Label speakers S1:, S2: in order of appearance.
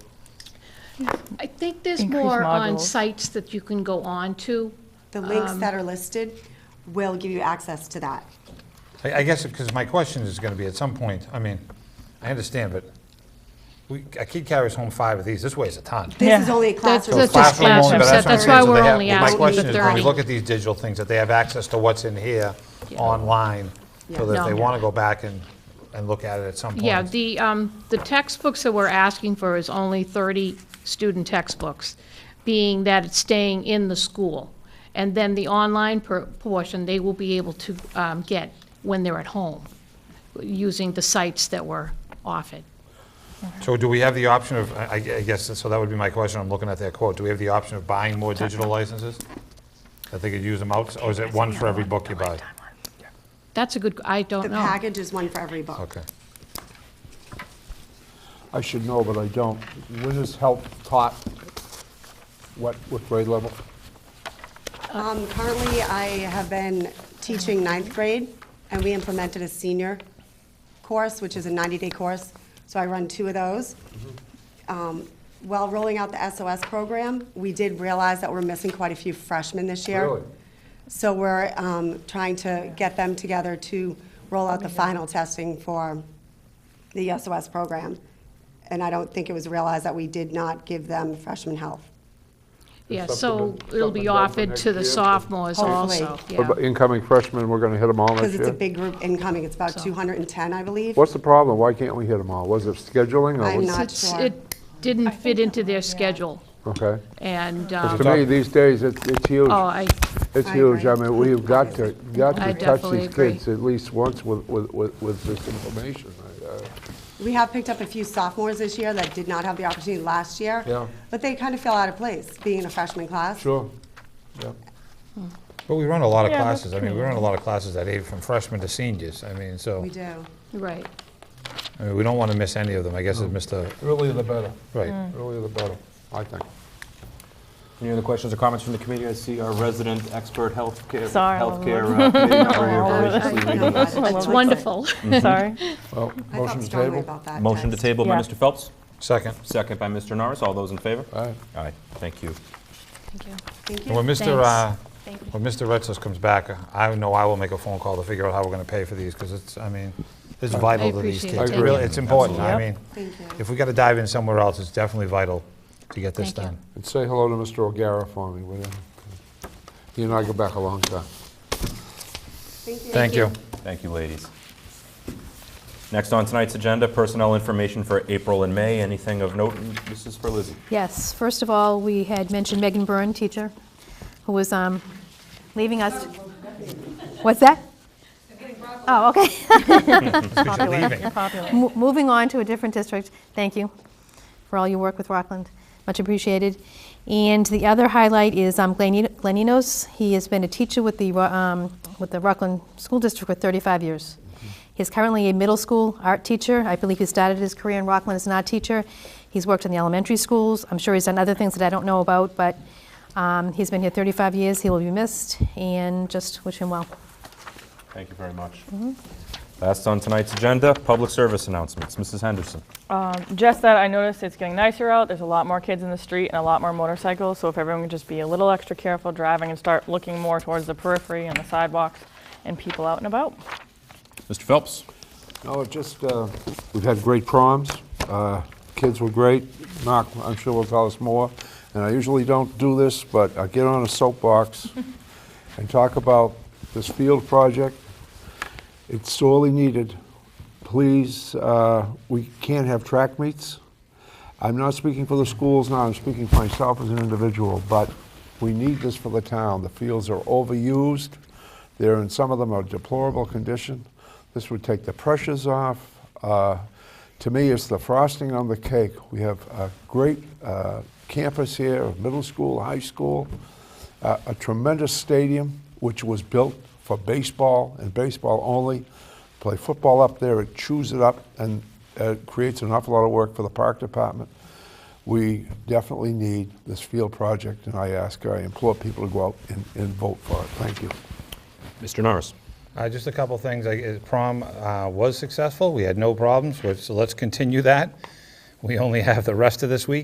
S1: I think there's
S2: Increase
S1: more on
S2: modules.
S1: sites that you can go on to.
S3: The
S1: Um,
S3: links that are listed will give you access to that.
S4: I I guess, because my question is going to be at some point, I mean, I understand, but we, a kid carries home five of these, this weighs a ton.
S3: This is
S2: Yeah.
S3: only a
S1: That's-
S3: classroom.
S1: that's just
S4: Classroom only,
S1: classroom
S4: but
S1: set.
S4: what I'm
S1: That's
S4: saying,
S1: why
S4: so they
S1: we're
S4: have-
S1: only
S4: My
S1: asking
S4: question
S1: for
S4: is, when
S1: 30.
S4: we look at these digital things, that they have access to what's in here online, so that if they
S1: No.
S4: want to go back and, and look at it at some point.
S1: Yeah, the, um, the textbooks that we're asking for is only 30 student textbooks, being that it's staying in the school. And then the online per- portion, they will be able to um, get when they're at home, using the sites that were offered.
S4: So do we have the option of, I I guess, so that would be my question, I'm looking at their quote, do we have the option of buying more digital licenses? That they could use them out, or is it one for every book you buy?
S1: That's a good, I
S3: The
S1: don't know.
S3: package is one for every book.
S4: Okay.
S5: I should know, but I don't. When is help taught? What, what grade level?
S3: Um, Currently, I have been teaching ninth grade, and we implemented a senior course, which is a 90-day course, so I run two of those. Um, While rolling out the SOS program, we did realize that we're missing quite a few freshmen this year.
S5: Really?
S3: So we're um, trying to get them together to roll out the final testing for the SOS program. And I don't think it was realized that we did not give them freshman help.
S1: Yeah,
S5: Something
S1: so
S5: to-
S1: it'll be
S5: something done for
S1: offered
S5: next
S1: to the
S5: year.
S1: sophomores
S3: Hopefully.
S1: also, yeah.
S5: About Incoming freshmen, we're gonna hit them all next
S3: Because
S5: year?
S3: it's a big group incoming, it's about
S1: So-
S3: 210, I believe.
S5: What's the problem? Why can't we hit them all? Was it scheduling or?
S3: I'm
S5: was-
S3: not
S1: It's-
S3: sure.
S1: It didn't fit into their schedule,
S5: Okay.
S1: and,
S5: 'Cause
S1: um,
S5: to me, these days, it's it's huge.
S1: oh, I,
S5: It's
S3: I
S5: huge. I
S3: agree.
S5: mean, we've got to, got
S1: I
S5: to touch
S1: definitely
S5: these
S1: agree.
S5: kids at least once with, with, with with this information. I, uh,
S3: We have picked up a few sophomores this year that did not have the opportunity last year.
S5: Yeah.
S3: But they kind of feel out of place, being in a freshman class.
S5: Sure. Yeah.
S4: But we run a lot of
S2: Yeah, that's
S4: classes, I mean, we run a lot of classes that age from freshmen to seniors, I mean, so,
S3: We do.
S1: right.
S4: I mean, we don't want to miss any of them, I guess, is Mr.,
S5: Earlier the better.
S4: right.
S3: Mm.
S5: Earlier the better, I think.
S6: Any other questions or comments from the committee? I see our resident expert healthcare,
S2: Sorry, I
S6: healthcare uh, committee member here
S3: I
S6: voraciously
S3: know
S6: reading
S3: about
S6: this.
S3: it.
S1: It's wonderful.
S2: Sorry.
S5: Well,
S3: I
S5: motion
S3: felt
S5: to
S3: strongly
S5: table?
S3: about that.
S6: Motion to
S3: text.
S6: table by
S2: Yeah.
S6: Mr. Phelps,
S4: Second,
S6: second by Mr. Norris. All those in favor?
S5: Aye.
S6: Aye, thank you.
S1: Thank you.
S3: Thank
S4: And when
S3: you.
S4: Mr., uh, when Mr. Retzos comes back, I know I will make a phone call to figure out how we're going to pay for these, because it's, I mean, it's vital to these
S1: appreciate
S4: kids.
S5: it.
S4: It really- It's important, I
S2: Absolutely.
S4: mean,
S3: Thank you.
S4: if we got to dive in somewhere else, it's definitely vital to get this
S1: Thank you.
S4: done.
S5: And say hello to Mr. O'Gara for me, will you? He and I go back a long time.
S3: Thank you.
S4: Thank you.
S6: Thank you, ladies. Next on tonight's agenda, personnel information for April and May. Anything of note? This is for Lizzie.
S7: Yes, first of all, we had mentioned Megan Byrne, teacher, who was um, leaving us. What's that? Oh, okay.
S4: Because you're leaving.
S7: Mo- Moving on to a different district, thank you for all your work with Rockland, much appreciated. And the other highlight is um, Glenn En- Glenn Enos. He has been a teacher with the, Ro- um, with the Rockland School District for 35 years. He's currently a middle school art teacher. I believe he started his career in Rockland as an art teacher. He's worked in the elementary schools. I'm sure he's done other things that I don't know about, but um, he's been here 35 years. He will be missed, and just wish him well.
S6: Thank you very much.
S2: Mm-hmm.
S6: Last on tonight's agenda, public service announcements. Mrs. Henderson.
S2: Just that I noticed it's getting nicer out. There's a lot more kids in the street and a lot more motorcycles. So if everyone could just be a little extra careful driving and start looking more towards the periphery and the sidewalks and people out and about.
S6: Mr. Phelps.
S5: No, it just, uh, we've had great proms. Uh, Kids were great. Mark, I'm sure will tell us more. And I usually don't do this, but I get on a soapbox and talk about this field project. It's sorely needed. Please, uh, we can't have track meets. I'm not speaking for the schools now, I'm speaking for myself as an individual, but we need this for the town. The fields are overused, they're in, some of them are deplorable condition. This would take the pressures off. Uh, To me, it's the frosting on the cake. We have a great uh, campus here, middle school, high school, uh, a tremendous stadium, which was built for baseball and baseball only. Play football up there, it chews it up, and uh, creates an awful lot of work for the park department. We definitely need this field project, and I ask, I implore people to go out and, and vote for it. Thank you.
S6: Mr. Norris.
S4: Uh, Just a couple things. I- uh, Prom uh, was successful. We had no problems, so let's continue that. We only have the rest of this week.